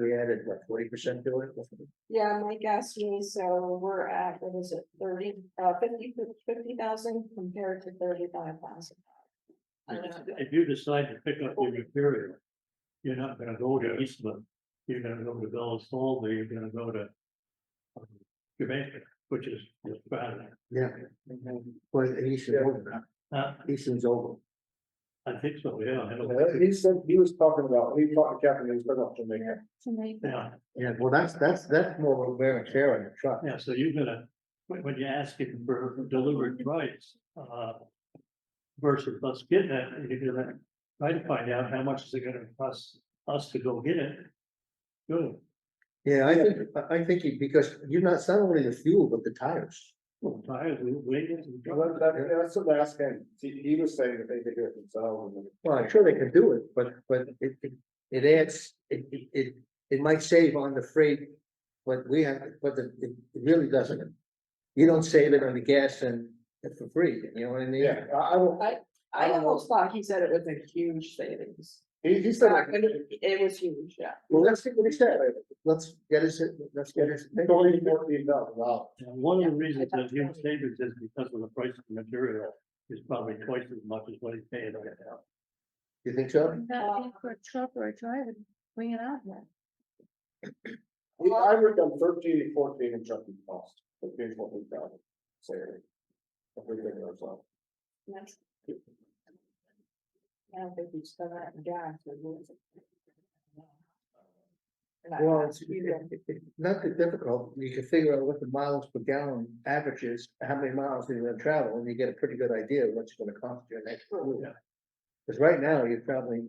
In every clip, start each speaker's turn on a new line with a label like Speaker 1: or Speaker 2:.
Speaker 1: We added what, forty percent to it?
Speaker 2: Yeah, Mike asked me, so we're at, what is it, thirty, uh, fifty, fifty thousand compared to thirty-five thousand.
Speaker 3: If you decide to pick up your material, you're not gonna go to Eastman, you're gonna go to Bell's Hall, or you're gonna go to um, Jamaica, which is just bad.
Speaker 1: Yeah.
Speaker 4: Mm-hmm.
Speaker 1: Well, Easton's over,
Speaker 3: Uh,
Speaker 1: Easton's over.
Speaker 3: I think so, yeah. I don't-
Speaker 4: He said, he was talking about, he talked to Captain, he was talking about Jamaica.
Speaker 3: Yeah,
Speaker 1: Yeah, well, that's, that's, that's more of a wear and tear on the truck.
Speaker 3: yeah, so you're gonna, when, when you ask it for delivered price, uh, versus us getting it, you're gonna try to find out how much is it gonna cost us to go get it. Good.
Speaker 1: Yeah, I think, I, I think, it- because you're not, it's not only the fuel, but the tires.
Speaker 3: Well, tires, we, we.
Speaker 4: Well, that- that- that's the last thing, he, he was saying that they could do it themselves. and-
Speaker 1: Well, I'm sure they can do it, but, but it, it, it adds, it, it- it, it might save on the freight. But we have, but the- it it really doesn't. You don't save it on the gas and it's for free, you know what I mean?
Speaker 4: Yeah, I, I will,
Speaker 2: I almost thought he said it was a huge savings.
Speaker 4: he, he said.
Speaker 2: Not gonna- It was huge, yeah.
Speaker 1: Well, let's see what he said. Let's get us, let's get us.
Speaker 4: Only fourteen thousand dollars.
Speaker 3: Now, one of the reasons
Speaker 2: I
Speaker 3: that
Speaker 2: thought
Speaker 3: him
Speaker 2: so.
Speaker 3: savings is because of the price of the material is probably twice as much as what he's paying right now.
Speaker 1: You think so?
Speaker 2: Well-
Speaker 5: Not for a truck or a driver, bring it out here.
Speaker 4: We, I worked on thirteen and fourteen in trucking costs, thirteen, fourteen thousand, say. If we did it ourselves.
Speaker 2: That's- I don't think he's still that gas. but it was- And I
Speaker 1: Well, it's,
Speaker 2: asked you then,
Speaker 1: it- it- not that difficult. You can figure out what the miles per gallon averages, how many miles you're gonna travel, and you get a pretty good idea of what it's gonna cost you next year.
Speaker 3: Yeah.
Speaker 1: Cause right now, you're probably,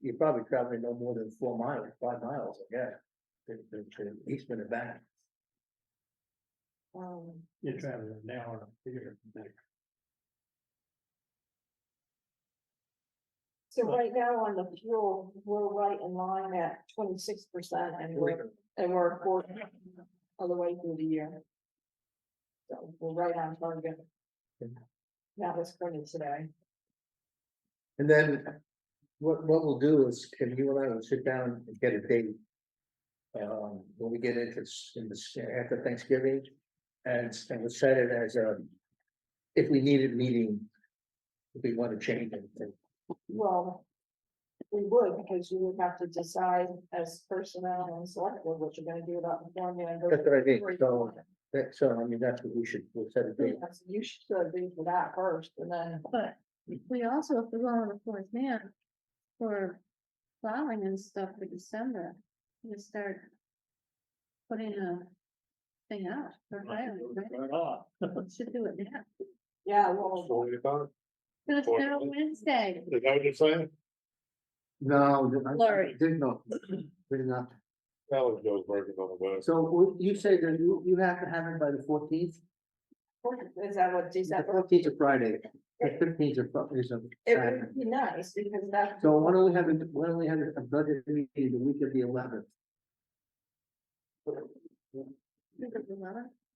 Speaker 1: you're probably traveling no more than four miles, five miles, I guess. to- to- to Eastman and back.
Speaker 2: um,
Speaker 3: You're traveling an hour here and there.
Speaker 2: So right now on the fuel, we're right in line at twenty-six percent and we're, and we're a quarter of the way through the year. So we're right on target. That was printed today.
Speaker 1: And then what, what we'll do is, can you and I will sit down and get a date? Um, when we get into, s- in the, s- after Thanksgiving, and, s- and we'll set it as a, if we need a meeting. If we want to change anything,
Speaker 2: Well, we would, because you would have to decide as personnel and select board what you're gonna do about the formula. and
Speaker 1: that's what I think,
Speaker 2: everything.
Speaker 1: so, that, so, I mean, that's what we should, we'll set a date.
Speaker 2: Yes, You should agree for that first and then,
Speaker 5: But we also, if we go on the fourth man for plowing and stuff for December, we start putting a thing out for hiring, right?
Speaker 3: Right off.
Speaker 5: We Should do it now.
Speaker 2: yeah,
Speaker 4: Oh,
Speaker 2: well,
Speaker 5: But it's
Speaker 4: Fourth
Speaker 5: now
Speaker 4: one.
Speaker 5: Wednesday.
Speaker 4: Is that what you're saying?
Speaker 1: No, I- I
Speaker 5: Larry.
Speaker 1: did not, did not,
Speaker 4: That was Joe's working on the west.
Speaker 1: so would you say that you, you have to have it by the fourteenth?
Speaker 2: is that what
Speaker 1: The
Speaker 2: December?
Speaker 1: fourteenth is Friday, the fifteenth is Fri- is a
Speaker 2: It
Speaker 1: Saturday.
Speaker 2: would be nice because that.
Speaker 1: So why don't we have, a- why don't we have a budget meeting the week of the eleventh,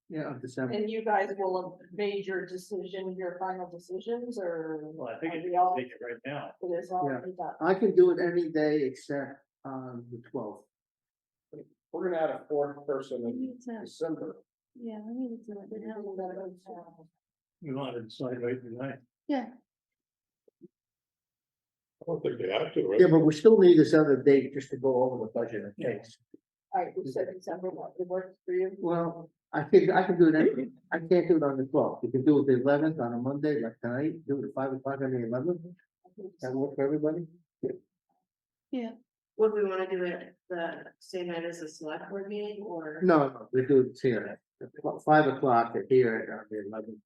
Speaker 1: yeah, of December?
Speaker 2: And you guys will have made your decision, your final decisions, or
Speaker 3: Well, I think
Speaker 2: Are
Speaker 3: it's,
Speaker 2: we all-
Speaker 3: take it right now.
Speaker 2: it is already done?
Speaker 1: I can do it any day except on the twelfth.
Speaker 4: We're gonna add a fourth person
Speaker 5: We
Speaker 4: in
Speaker 5: need to,
Speaker 4: December.
Speaker 5: yeah, we need to do it
Speaker 2: Then we'll let it uh,
Speaker 5: now.
Speaker 2: go.
Speaker 3: You want to decide right tonight.
Speaker 5: Yeah,
Speaker 4: I don't think they have to,
Speaker 1: Yeah, but we still need this other date just to go over the budget in case.
Speaker 2: All right, we said December, what, it works for you?
Speaker 1: Well, I think, I can do it, any- I can't do it on the twelfth, you can do it the eleventh on a Monday, like tonight, do it at five o'clock on the eleventh, that work for everybody?
Speaker 6: Would we wanna do it the same night as the select board meeting or?
Speaker 1: No, no, we do it here, at fi- five o'clock here on the eleventh,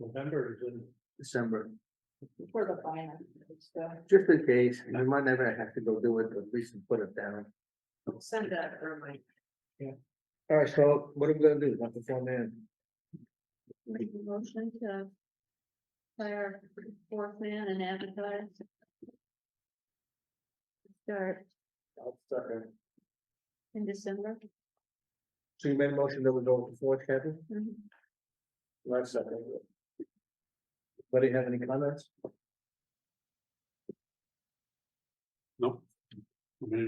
Speaker 3: November is in,
Speaker 1: December,
Speaker 2: For the final, so.
Speaker 1: just in case, we might never have to go do it, but at least we put it down.
Speaker 6: Send a reminder.
Speaker 1: All right, so what are we gonna do, not before then?
Speaker 5: make a motion to hire fourth man and advertise. Start in December.
Speaker 1: So you made a motion that we go before, Kevin,
Speaker 5: Mm-hmm.
Speaker 4: Last second.
Speaker 1: anybody have any comments?
Speaker 4: Mm-hmm.
Speaker 3: I mean,